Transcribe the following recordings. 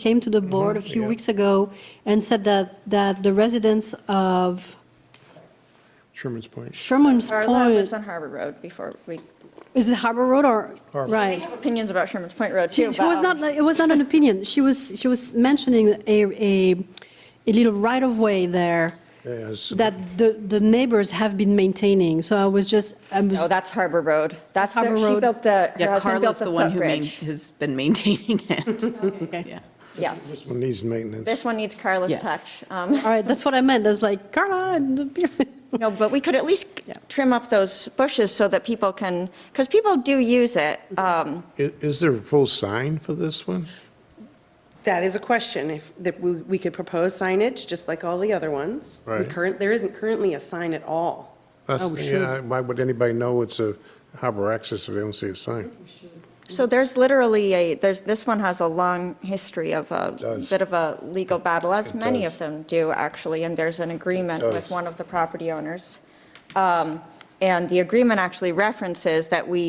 came to the board a few Mm-hmm. yeah. weeks ago and said that, that the residents of Sherman's Point. Sherman's Carla lives Point, on Harbor Road before we, is it Harbor Road or, Harbor. right? opinions about Sherman's Point Road She too. she but, was um, not, like- it was not an opinion. She was, she was mentioning a, a, a little right-of-way there Yes. that the, the neighbors have been maintaining. So I was just, I was, Oh, No, that's Harbor Road. That's, the- Harbor she Road. built the, her Yeah, husband built Carla's the the one who main- footbridge. has been maintaining it. Yeah. Yes, This one needs maintenance. this one needs Carla's Yes. touch. Um, all right, that's what I meant. That's like, Carla, and No, but we could at least trim up those bushes so that people can, because people do use it. Um, I- Is there a proposed sign for this one? That is a question, if, that we we could propose signage, just like all the other ones. We Right. current- There isn't currently a sign at all. That's, Oh, sure. yeah, why would anybody know it's a harbor access if they don't see a sign? So there's literally a, there's, this one has a long history of a does. bit of a legal battle, as It many does. of them do, actually, and there's an agreement It with does. one of the property owners. Um, And the agreement actually references that we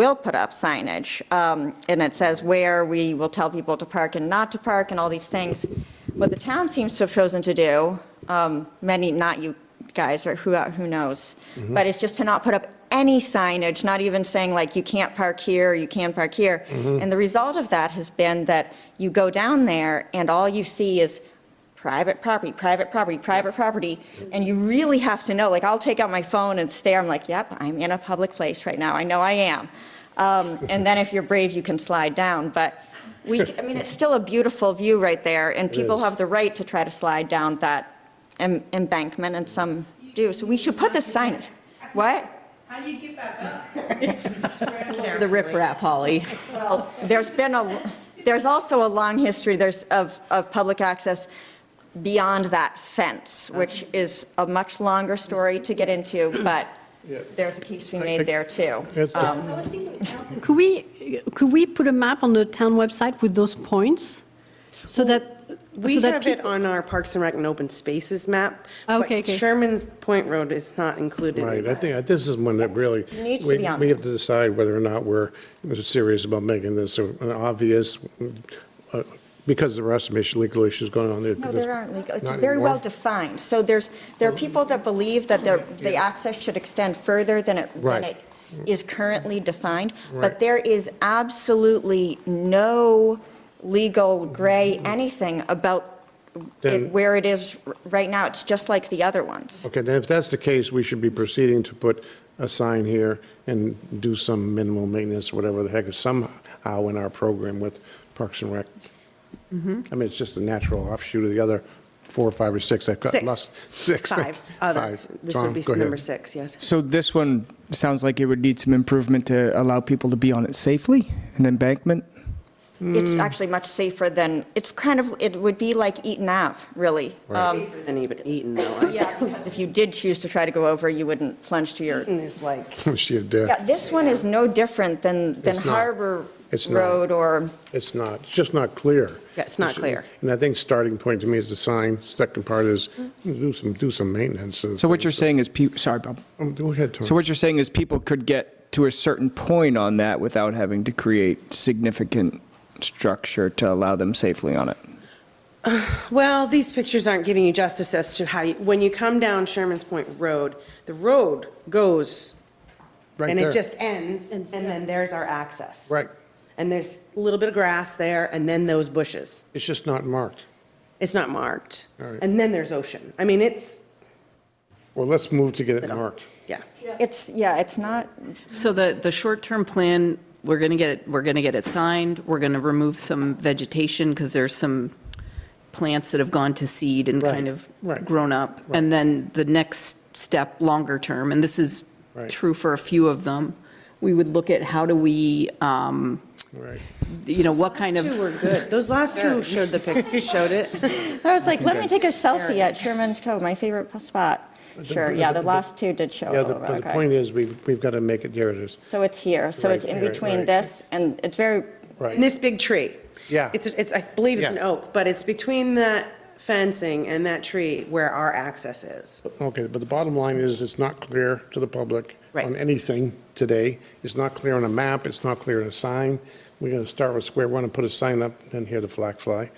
will put up signage, um, and it says where, we will tell people to park and not to park, and all these things. What the town seems to have chosen to do, um, many, not you guys, or who, who knows, but it's just to not put up any signage, not even saying like, you can't park here, you can park here. And the result of that has been that you go down there, and all you see is private property, private property, private property, and you really have to know, like, I'll take out my phone and stare, I'm like, yep, I'm in a public place right now, I know I am. Um, And then if you're brave, you can slide down, but we, I mean, it's still a beautiful view right there, and people is. have the right to try to slide down that em- embankment, and some do, so we should put the signage. What? How do you get back up? The riprap, Holly. Well, there's been a, there's also a long history, there's, of, of public access beyond that fence, which is a much longer story to get into, but there's a case we made there too. It's- Um, could we, could we put a map on the town website with those points? So that, We so that have it people, on our Parks and Rec and Open Spaces map. Okay, But okay. Sherman's Point Road is not included. in Right, I that. think, that this is one that really, Needs to we be on we there. have to decide whether or not we're serious about making this a- an obvious, uh, because there are some issue, legal issues going on there. No, but there aren't legal, it's not very well anymore. defined. So there's, there are people that believe that the, the access should extend further than it, than Right. it is currently defined. Right. But there is absolutely no legal gray anything about Then- it- where it is r- right now. It's just like the other ones. Okay, then if that's the case, we should be proceeding to put a sign here and do some minimal maintenance, whatever the heck, is somehow in our program with Parks and Rec. Mm-hmm. I mean, it's just a natural offshoot of the other four, five, or six. I've got Six. lost six. Five, other, Five. this Tom, would be go ahead. number six, yes. So this one sounds like it would need some improvement to allow people to be on it safely, an embankment? It's Mm. actually much safer than, it's kind of, it would be like Eaton Ave, really. Um, Safer than even Eaton, though. Yeah, because if you did choose to try to go over, you wouldn't plunge to your Eaton is like, She did. Yeah, this one is no different than, than It's not. Harbor It's not. Road or, It's not, it's just not clear. Yeah, it's not clear. And I think starting point to me is the sign, second part is do some, do some maintenance. So what you're saying is, peo- sorry, Bob. Um, Go ahead, Tom. So what you're saying is people could get to a certain point on that without having to create significant structure to allow them safely on it? well, these pictures aren't giving you justice as to how, you- when you come down Sherman's Point Road, the road goes, Right and there. it just ends, and then there's our access. Right. And there's a little bit of grass there, and then those bushes. It's just not marked. It's not marked. All right. And then there's ocean. I mean, it's, Well, let's move to get it marked. yeah. it's, yeah, it's not, So the, the short-term plan, we're going to get it, we're going to get it signed. We're going to remove some vegetation because there's some plants that have gone to seed and kind Right, of right, grown up. And then the next step, longer term, and this is Right. true for a few of them, we would look at how do we, um, Right. you know, what kind Two of, were good. Those last two showed the pic, showed it. I was like, let me take a selfie at Sherman's Cove, my favorite spot. Sure, yeah, the last two did show a Yeah, the- little bit, but the point okay. is, we, we've got to make it, there it is. So it's here, so it's Right, in right, between right. this, and it's very, Right. And this big tree. Yeah. It's, it's, I believe it's an Yeah. oak, but it's between that fencing and that tree where our access is. Okay, but the bottom line is, it's not clear to the public Right. on anything today. It's not clear on a map, it's not clear on a sign. We're going to start with square one and put a sign up, then hear the flag fly.